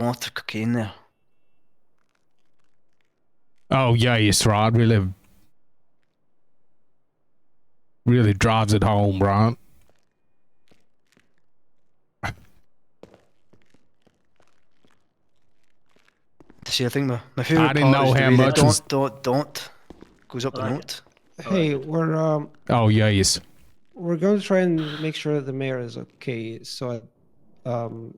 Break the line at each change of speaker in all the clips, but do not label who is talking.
Låter cocaine.
Oh yeah, yes, right. Really, really drives it home, right?
See, I think my, my favorite
I didn't
part
know
is the
how
way that
much
don't,
is-
don't, don't goes up the
Right.
note.
Hey, we're um,
Oh yeah, yes.
we're going to try and make sure the mayor is okay. So, I, um,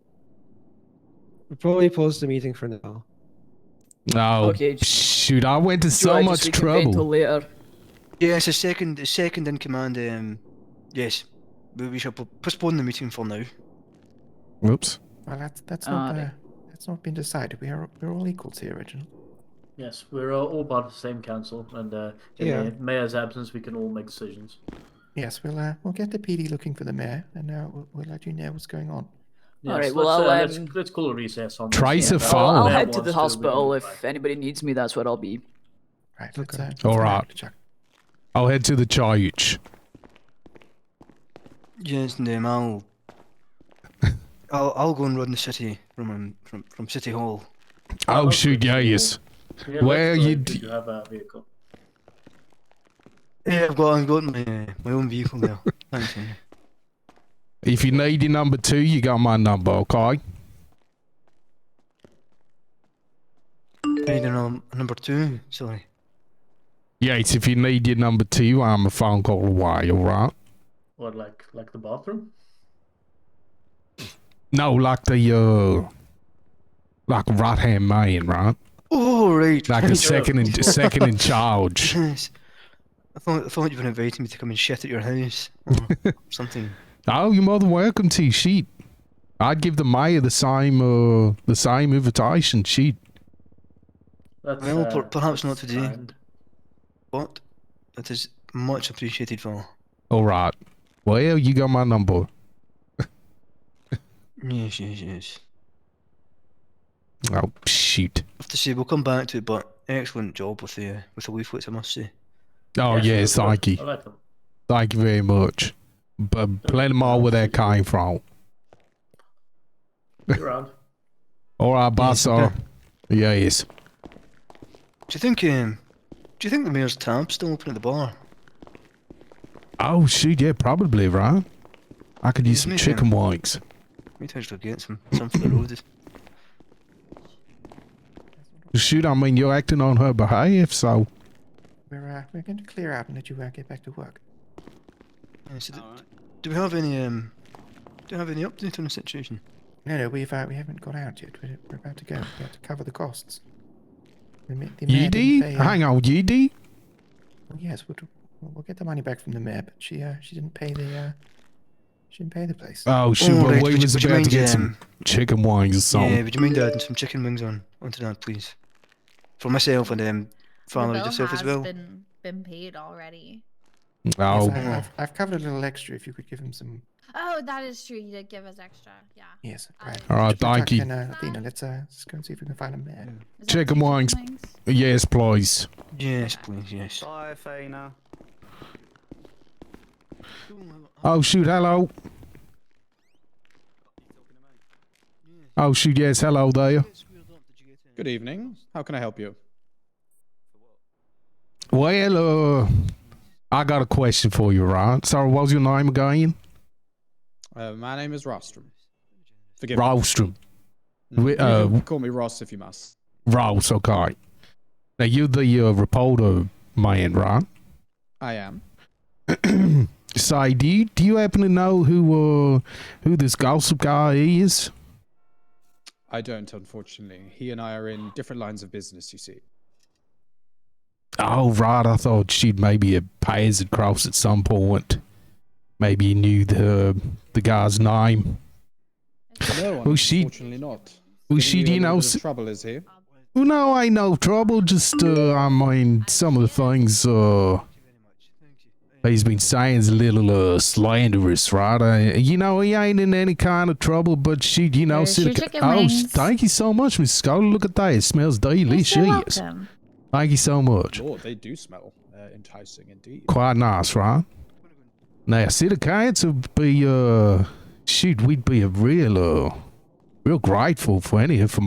we'll probably close the meeting for now.
Oh
Okay, j-
shoot, I went to
Should
so
I just
much
reconvene Till
trouble.
later.
Yeah, it's a second, it's second in command. Um, yes, we, we shall po- postpone the meeting for now.
Oops.
Well, that's that's not
Ah,
uh, that's not been decided. We are we're all equals here, Reginald.
Yes, we're uh, all part of the same council, and uh, in
Yeah.
the mayor's absence, we can all make decisions.
Yes, we'll uh, we'll get the PD looking for the mayor, and uh, we'll, we'll let you know what's going on.
All right,
Yes,
well,
let's, uh,
I'll,
let's,
um,
let's call a recess on.
Try
this.
to
Yeah,
follow.
I'll, I'll
mayor
head
wants
to the
we can
hospital
go
if
back.
anybody needs me. That's where I'll be.
Right. Let's, uh, let's
All
go
right.
back to Chuck.
I'll head to the church.
Yes, and um, I'll, I'll, I'll go and run the city from um, from from City Hall.
Oh
okay.
shoot, yeah, yes.
Yeah,
Where
let's go
you
if
d-
you have a vehicle?
Yeah, I've got I've got my uh, my own vehicle there. Thanks. Henry.
If you need your number two, you got my number, okay?
Hey, then, um, number two. Sorry.
Yes, if you need your number two, I'm a phone call away, alright?
Or like like the bathroom?
No, like the uh like right hand man, right?
Oh right.
Like the second in second in charge.
Yes. I thought I thought you were inviting me to come and shit at your house or something.
Oh, you're more than welcome to, shit. I'd give the mayor the same uh the same invitation, shit.
That's,
Well, per-
uh,
perhaps not
that's
today.
kind.
But it is much appreciated for.
Alright. Well, you got my number.
Yes, yes, yes.
Oh shoot.
I have to say we'll come back to it, but excellent job with the with the leaflets, I must say.
Oh
Yes,
yes,
that's
thank
good.
you.
I like them.
Thank you very much. But plenty more where that came from.
You're on.
Alright, boss.
okay.
sir. Yes.
Do you think um, do you think the mayor's tab's still open at the bar?
Oh shoot, yeah, probably, right? I could use some
Mhm.
chicken wings.
We need to actually get some some for the road.
Shoot, I mean you're acting on her behalf, so
We're uh, we're going to clear out and let you uh, get back to work.
Yeah, so do, do we have any um do we have any update on the situation?
No, no, we've uh, we haven't got out yet. We're, we're about to go. We have to cover the costs. The, ma- the mayor didn't
Yeedy?
pay, uh,
Hang on, Yeedy?
Well, yes, we'll, we'll we'll get the money back from the mayor, but she uh, she didn't pay the uh, she didn't pay the place.
Oh shoot,
Oh,
well,
right, would
we
you-
was
would you
about
mind,
to get
um,
some chicken wings or something.
Yeah, would you mind adding some chicken wings on onto that please? For myself and um family
bill
yourself as
has
well.
Been been paid already.
Oh,
Yes, I, I've, I've covered a little extra. If you could give him some,
Oh, that is true. You did give us extra. Yeah.
yes,
I-
right.
All right,
Chuck
thank you.
And, uh, Athena, let's uh, let's go and see if we can find a mayor.
Is that
Chicken wings. yes, please.
Yes, please, yes.
Bye, Fina.
Oh shoot, hello. Oh shoot, yes, hello there.
Good evening. How can I help you?
Well, uh, I got a question for you, right? Sorry, what was your name again?
Uh, my name is Rostrum. Forgive
Rostrum.
me.
we-
You can
uh,
call me Ross if you must.
Ross, okay. Now, you're the uh, reporter man, right?
I am.
Say, do you, do you happen to know who uh, who this gossip guy is?
I don't, unfortunately. He and I are in different lines of business, you see.
Oh, right. I thought she'd maybe have paths had crossed at some point. Maybe you knew the the guy's name.
No,
Well, she-
unfortunately not.
Well,
Giving
she
you a
didn't
little
know
bit
s-
of trouble is here.
Well, no, ain't no trouble. Just, uh, I mean, some of the things uh, he's been saying's a little uh, slanderous, right? Uh, you know, he ain't in any kind of trouble, but she, you know,
Here's
said-
your chicken
oh,
wings.
thank you so much, Miss Scott. Look at that. It smells delicious. Thank you so much.
Lord, they do smell uh, enticing indeed.
quite nice, right? Now, City Council would be, uh, shoot, we'd be a real, uh, real grateful for any information.